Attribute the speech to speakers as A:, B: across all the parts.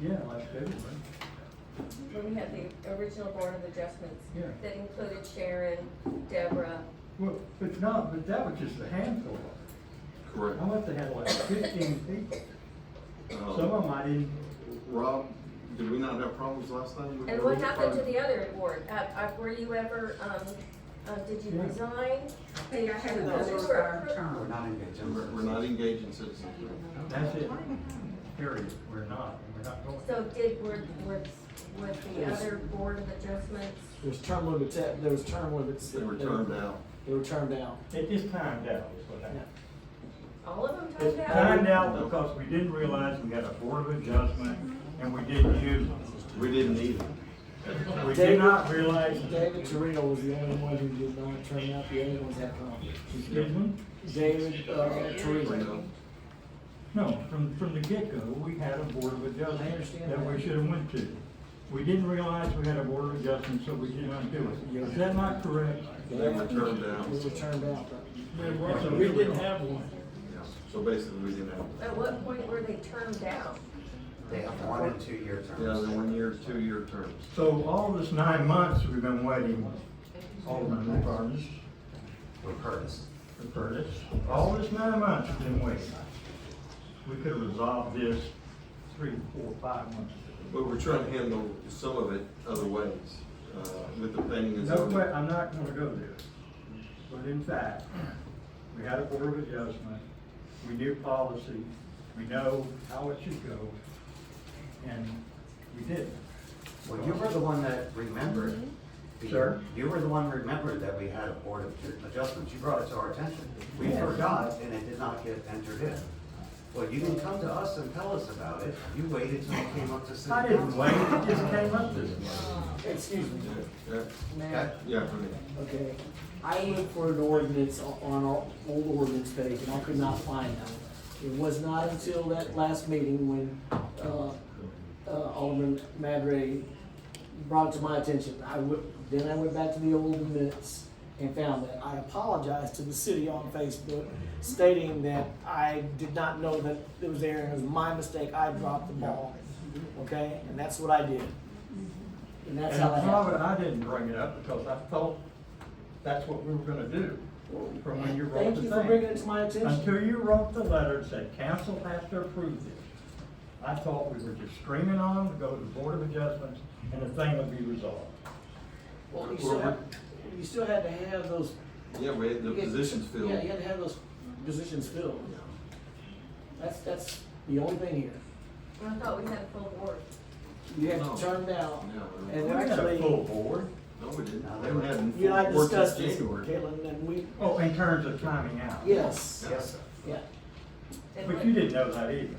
A: Yeah, like everybody.
B: When we had the original Board of Adjustments.
A: Yeah.
B: That included Sharon, Deborah,
A: Well, but no, but that was just a handful.
C: Correct.
A: I must have had like fifteen people.
C: Um,
A: Some of them I didn't,
C: Rob, did we not have problems last time? with
B: and
C: the
B: what
C: roof
B: happened to
C: project?
B: the other board? Uh, uh, were you ever, um, uh, did you
A: Yeah.
B: resign?
D: I think I had
B: Those
D: another
B: were
D: five
B: approved.
D: term.
E: We're not engaged in.
C: We're we're not engaging citizens.
A: that's it. Period. We're not, we're not going.
B: So did, were, were, was the other Board of Adjustments?
F: There's term limits, at- there was term limits.
C: They
F: that-
C: were turned out.
F: They were termed out.
A: It just timed out, is what happened.
B: All of them
A: It's
B: timed out?
A: timed out because we didn't realize we had a board of adjustment and we didn't use them.
C: We didn't need them.
A: We did not realize.
F: David Torino was the only one who did not turn out, the other ones had conflict.
A: Excuse me?
F: David, uh,
C: You
F: Torino.
C: know?
A: No, from, from the get-go, we had a board of
F: I
A: adjustment
F: understand
A: that we
F: that.
A: should have went to. We didn't realize we had a board of adjustment, so we did not do it. Is that not correct?
C: They were turned out.
F: They were turned out.
A: So we didn't have one.
C: Yeah. So basically, we didn't have. them.
B: At what point were they termed out?
E: They have one and two year terms.
C: Yeah, the one year, two year terms.
A: So all this nine months we've been waiting, Alderman Curtis,
E: With Curtis.
A: for Curtis, all this nine months we've been waiting. We could have resolved this three, four, five months ago.
C: But we're trying to handle some of it other ways, uh, with the planning and
A: No,
C: zoning.
A: que- I'm not gonna go there. But in fact, we had a board of adjustment, we knew policy, we know how it should go, and we did.
E: Well, you were the one that remembered.
A: Sir?
E: You were the one who remembered that we had a board of adjustments. You brought it to our attention. We
A: Yes.
E: forgot and it did not get entered in. Well, you didn't come to us and tell us about it. You waited till it came up to city
A: I didn't
E: council.
A: wait, it just came up this way.
F: Excuse me,
C: Yeah,
F: Mayor.
E: Okay.
C: yeah, for me.
F: Okay, I looked for an ordinance o- on our old ordinance page, and I could not find that. It was not until that last meeting when, uh, uh, Alderman Madray brought it to my attention. I went, then I went back to the old minutes and found that. I apologized to the city on Facebook stating that I did not know that it was there, and it was my mistake, I dropped the ball. Okay, and that's what I did. And that's
A: And
F: how that
A: probably I
F: happened.
A: didn't bring it up because I thought that's what we were gonna do from when you wrote
F: Thank
A: the
F: you for bringing
A: thing.
F: it to my attention.
A: Until you wrote the letter and said, council has to approve this. I thought we were just screaming on, them to go to the board of adjustments, and the thing would be resolved.
F: Well, you still had, you still had to have those.
C: Yeah, we had the
F: you had-
C: positions filled.
F: Yeah, you had to have those positions filled. That's, that's the only thing here.
B: I thought we had a full board.
F: You
C: No.
F: have to turn down.
C: Yeah.
F: And
A: We had a full
F: actually,
A: board.
C: No, we didn't. They were having
F: you and I
C: four
F: discussed
C: till
F: this,
C: January.
F: Caitlin, and we,
A: Oh, in terms of timing out?
F: yes,
E: Yes, sir.
F: yeah.
B: And
A: But
B: what-
A: you didn't know that either.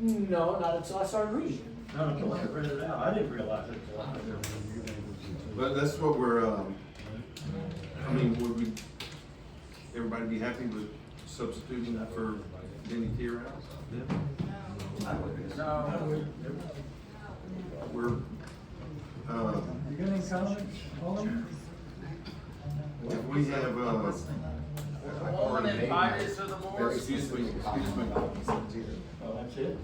F: No, not until I started reading.
A: Not until I read it out. I didn't realize it. till I-
C: But that's what we're, um, I mean, would we, everybody be happy with substituting that for Denny Tierhouse?
E: I would.
A: No,
C: We're, uh,
A: you got any comments, Paul?
C: if we have, uh,
G: Alderman advisors to the board.
C: excuse me, excuse me.
A: Oh, that's it?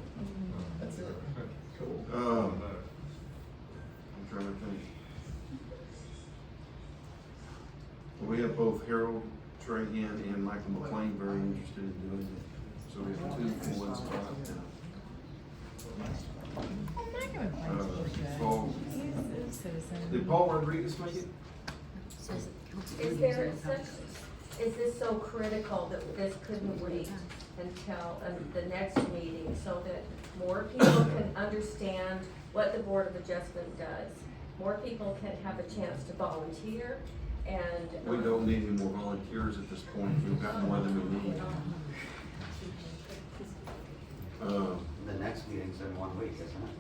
C: Um, I'm trying to think. We have both Harold Trahan and Michael McLean very interested in doing it, so we have two for one spot now.
H: I'm not gonna
C: Uh,
H: point to you,
C: so-
H: He's a citizen.
C: Did Paul Rodriguez make it?
B: Is there such, is this so critical that this couldn't wait until um, the next meeting so that more people can understand what the Board of Adjustment does? More people can have a chance to volunteer and.
C: We
B: um,
C: don't need any more volunteers at this point, we've got more than we need. Uh,
E: The next meeting's in one week, isn't it?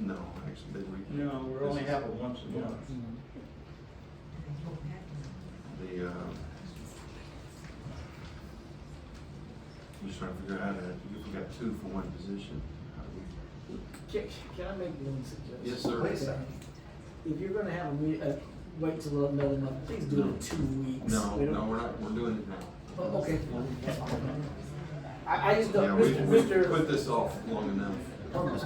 C: no, actually, they we?
A: No, we only have it once a month.
F: Mm-hmm.
C: The, uh, I'm just trying to figure out how to, if we got two for one position. how do we-
F: Can, can I make one suggestion?
C: Yes, sir.
E: Wait a second.
F: If you're gonna have a meet, uh, wait till another month, please do it in two weeks.
C: No,
F: We don't-
C: no, we're not, we're doing it now.
F: Oh, Okay. I, I just
C: Yeah,
F: don't,
C: we,
F: Mr.
C: we
F: Mr.
C: put this off long enough.